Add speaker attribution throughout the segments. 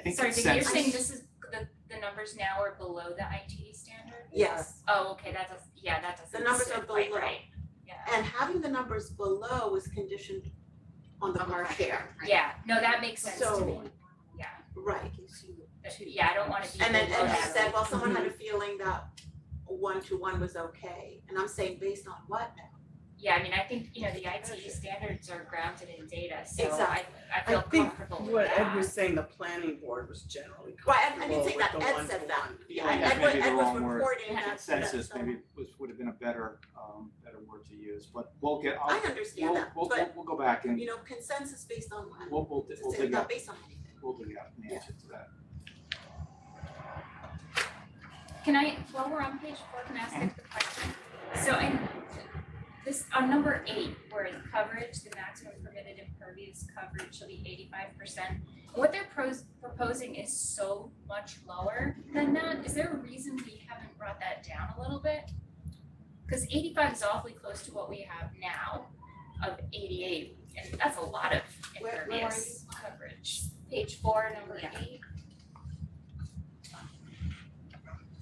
Speaker 1: I think
Speaker 2: Sorry,
Speaker 1: it's
Speaker 2: Vicky, you're
Speaker 1: sensitive.
Speaker 2: saying this is, the, the numbers now are below the ITD standard?
Speaker 3: Yes,
Speaker 2: Oh, okay, that does, yeah, that doesn't.
Speaker 3: The numbers
Speaker 2: sit
Speaker 3: are
Speaker 2: quite
Speaker 3: below.
Speaker 2: Right, yeah.
Speaker 3: and having the numbers below is conditioned on the
Speaker 4: On the
Speaker 3: car
Speaker 4: car
Speaker 3: share,
Speaker 2: Yeah, no, that makes sense to
Speaker 3: So-
Speaker 2: me. Yeah,
Speaker 3: right?
Speaker 2: but- yeah, I don't wanna be
Speaker 3: And then,
Speaker 2: below
Speaker 3: and he
Speaker 2: that.
Speaker 3: said, Mm-hmm. well, someone had a feeling that one to one was okay, and I'm saying based on what now?
Speaker 2: Yeah, I mean, I think, you know, the ITD standards are grounded in data, so I,
Speaker 3: Exactly.
Speaker 2: I
Speaker 1: I
Speaker 2: feel
Speaker 1: think
Speaker 2: comfortable with
Speaker 1: What
Speaker 2: that.
Speaker 1: Ed was saying, the planning board was generally
Speaker 3: Right, I- I didn't
Speaker 1: comfortable
Speaker 3: say
Speaker 1: with the
Speaker 3: that, Ed
Speaker 1: one
Speaker 3: said
Speaker 1: to
Speaker 3: that,
Speaker 1: one.
Speaker 3: yeah,
Speaker 1: Yeah,
Speaker 3: Ed,
Speaker 1: yeah,
Speaker 3: Ed was,
Speaker 1: maybe the
Speaker 3: Ed was
Speaker 1: wrong word.
Speaker 3: reporting that, that,
Speaker 5: consensus
Speaker 3: so-
Speaker 5: maybe was, would have been a better, um, better word to use, but we'll get,
Speaker 3: I
Speaker 5: I'll,
Speaker 3: understand
Speaker 5: we'll,
Speaker 3: that,
Speaker 5: we'll,
Speaker 3: but,
Speaker 5: we'll, we'll go back and
Speaker 3: you know, consensus based on what?
Speaker 5: we'll, we'll, we'll
Speaker 3: It's
Speaker 5: dig
Speaker 3: not
Speaker 5: up,
Speaker 3: based on anything.
Speaker 5: we'll dig up an answer to that.
Speaker 2: Can I, while we're on page four, can I ask a quick question? So I, this, on number eight, where it's coverage, the maximum permitted impervious coverage shall be eighty-five percent. What they're pros- proposing is so much lower than that. Is there a reason we haven't brought that down a little bit? Cause eighty-five is awfully close to what we have now of eighty-eight, and that's a lot of
Speaker 3: Where- where are
Speaker 2: impervious coverage. Page four, number
Speaker 4: Yeah.
Speaker 2: eight.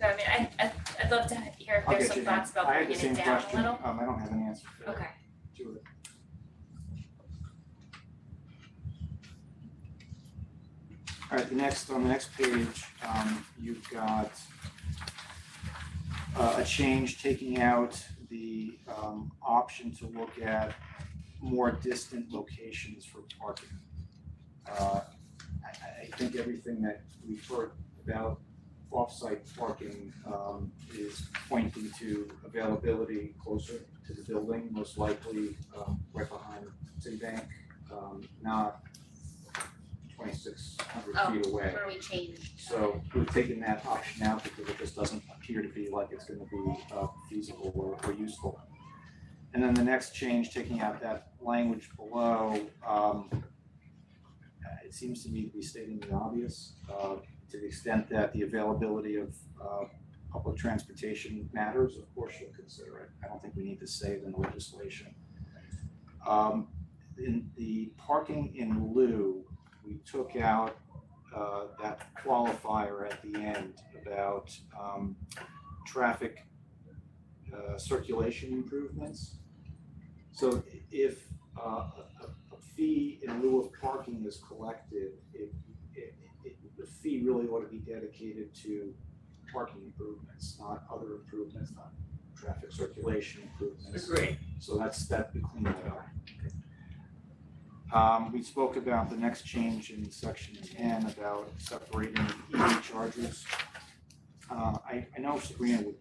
Speaker 2: So I mean, I, I, I'd love to hear if
Speaker 5: I'll
Speaker 2: there's
Speaker 5: get
Speaker 2: some
Speaker 5: you an
Speaker 2: thoughts
Speaker 5: answer.
Speaker 2: about
Speaker 5: I had the
Speaker 2: bringing
Speaker 5: same
Speaker 2: it down a
Speaker 5: question,
Speaker 2: little.
Speaker 5: um, I don't have an answer for it,
Speaker 2: Okay,
Speaker 5: to it. Alright, the next, on the next page, um, you've got uh, a change taking out the, um, option to look at more distant locations for parking. Uh, I, I- I think everything that we've heard about off-site parking, um, is pointing to availability closer to the building, most likely, um, right behind Citibank, um, not twenty-six hundred
Speaker 2: Oh.
Speaker 5: feet away.
Speaker 2: where we changed.
Speaker 5: So we've taken that option out because it just doesn't appear to be like it's gonna be uh, feasible or, or useful. And then the next change, taking out that language below, um, uh, it seems to me to be stating the obvious, uh, to the extent that the availability of, uh, public transportation matters, of course you'll consider it. I don't think we need to say it in the legislation. Um, in the parking in lieu, we took out uh, that qualifier at the end about um, traffic uh, circulation improvements. So if uh, a a- a fee in lieu of parking is collected, it, it, it- the fee really ought to be dedicated to parking improvements, not other improvements, not traffic circulation improvements.
Speaker 1: Agree.
Speaker 5: So that's, that, we cleaned that up. Um, we spoke about the next change in section ten about separating EV chargers. Uh, I, I know Sabrina would,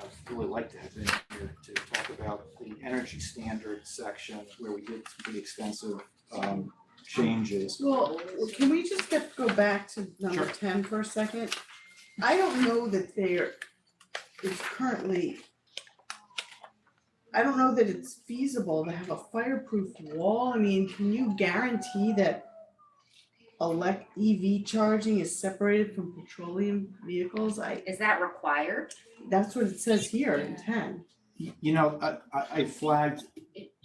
Speaker 5: I would really like to have been here to talk about the energy standard section where we did some pretty extensive, um, changes.
Speaker 1: Well, can we just get, go back to number
Speaker 5: Sure.
Speaker 1: ten for a second? I don't know that there is currently. I don't know that it's feasible to have a fireproof wall, I mean, can you guarantee that? Elect EV charging is separated from petroleum vehicles, I,
Speaker 4: Is that required?
Speaker 1: that's what it says here in ten.
Speaker 5: Y- You know, I, I, I flagged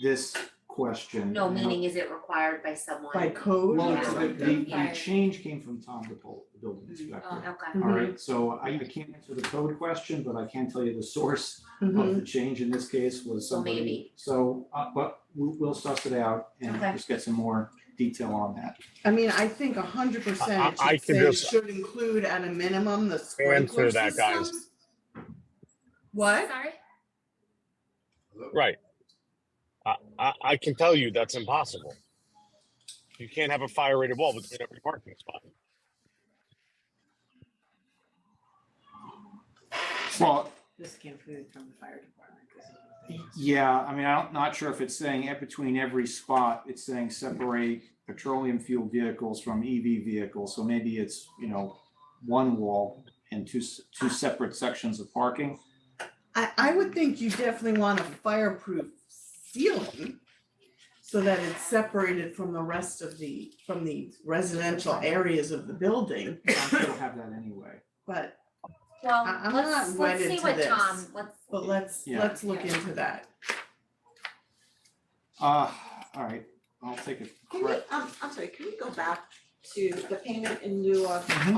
Speaker 5: this question.
Speaker 4: No,
Speaker 5: you know,
Speaker 4: meaning is it required by someone?
Speaker 1: By code?
Speaker 5: Well,
Speaker 4: Yeah.
Speaker 5: the, the, the
Speaker 2: Yeah.
Speaker 5: change came from Tom DePaul, the building inspector.
Speaker 4: Oh, okay.
Speaker 5: All right, so I I can't answer the code question, but I can tell you the source
Speaker 1: Mhm.
Speaker 5: of the change in this case was
Speaker 4: Mm-hmm. Well,
Speaker 5: somebody.
Speaker 4: maybe.
Speaker 5: So, uh, but we'll, we'll suss it out and
Speaker 4: Okay.
Speaker 5: just get some more detail on that.
Speaker 1: I mean, I think a hundred
Speaker 6: I-
Speaker 1: percent
Speaker 6: I
Speaker 1: it should
Speaker 6: can
Speaker 1: say
Speaker 6: just-
Speaker 1: should include at a minimum the sprinkler
Speaker 6: Answer that, guys.
Speaker 1: systems. What?
Speaker 2: Sorry?
Speaker 6: Right. I, I, I can tell you that's impossible. You can't have a fire rated wall between every parking spot.
Speaker 5: Well,
Speaker 7: This came through from the fire department. this is what they-
Speaker 5: yeah, I mean, I'm not sure if it's saying it between every spot, it's saying separate petroleum fuel vehicles from EV vehicles. So maybe it's, you know, one wall and two, s- two separate sections of parking.
Speaker 1: I, I would think you definitely want a fireproof ceiling so that it's separated from the rest of the, from the residential areas of the building,
Speaker 5: I'm sure we'll have that anyway.
Speaker 1: but, I-
Speaker 4: Well,
Speaker 1: I'm
Speaker 4: let's,
Speaker 1: not
Speaker 4: let's
Speaker 1: wedded
Speaker 4: see
Speaker 1: to
Speaker 4: what
Speaker 1: this.
Speaker 4: Tom, let's,
Speaker 1: but let's,
Speaker 5: Yeah.
Speaker 1: let's look into that.
Speaker 5: Uh, all right, I'll take a
Speaker 3: Can we,
Speaker 5: correct.
Speaker 3: um, I'm sorry, can we go back to the payment in lieu of
Speaker 5: Mhm.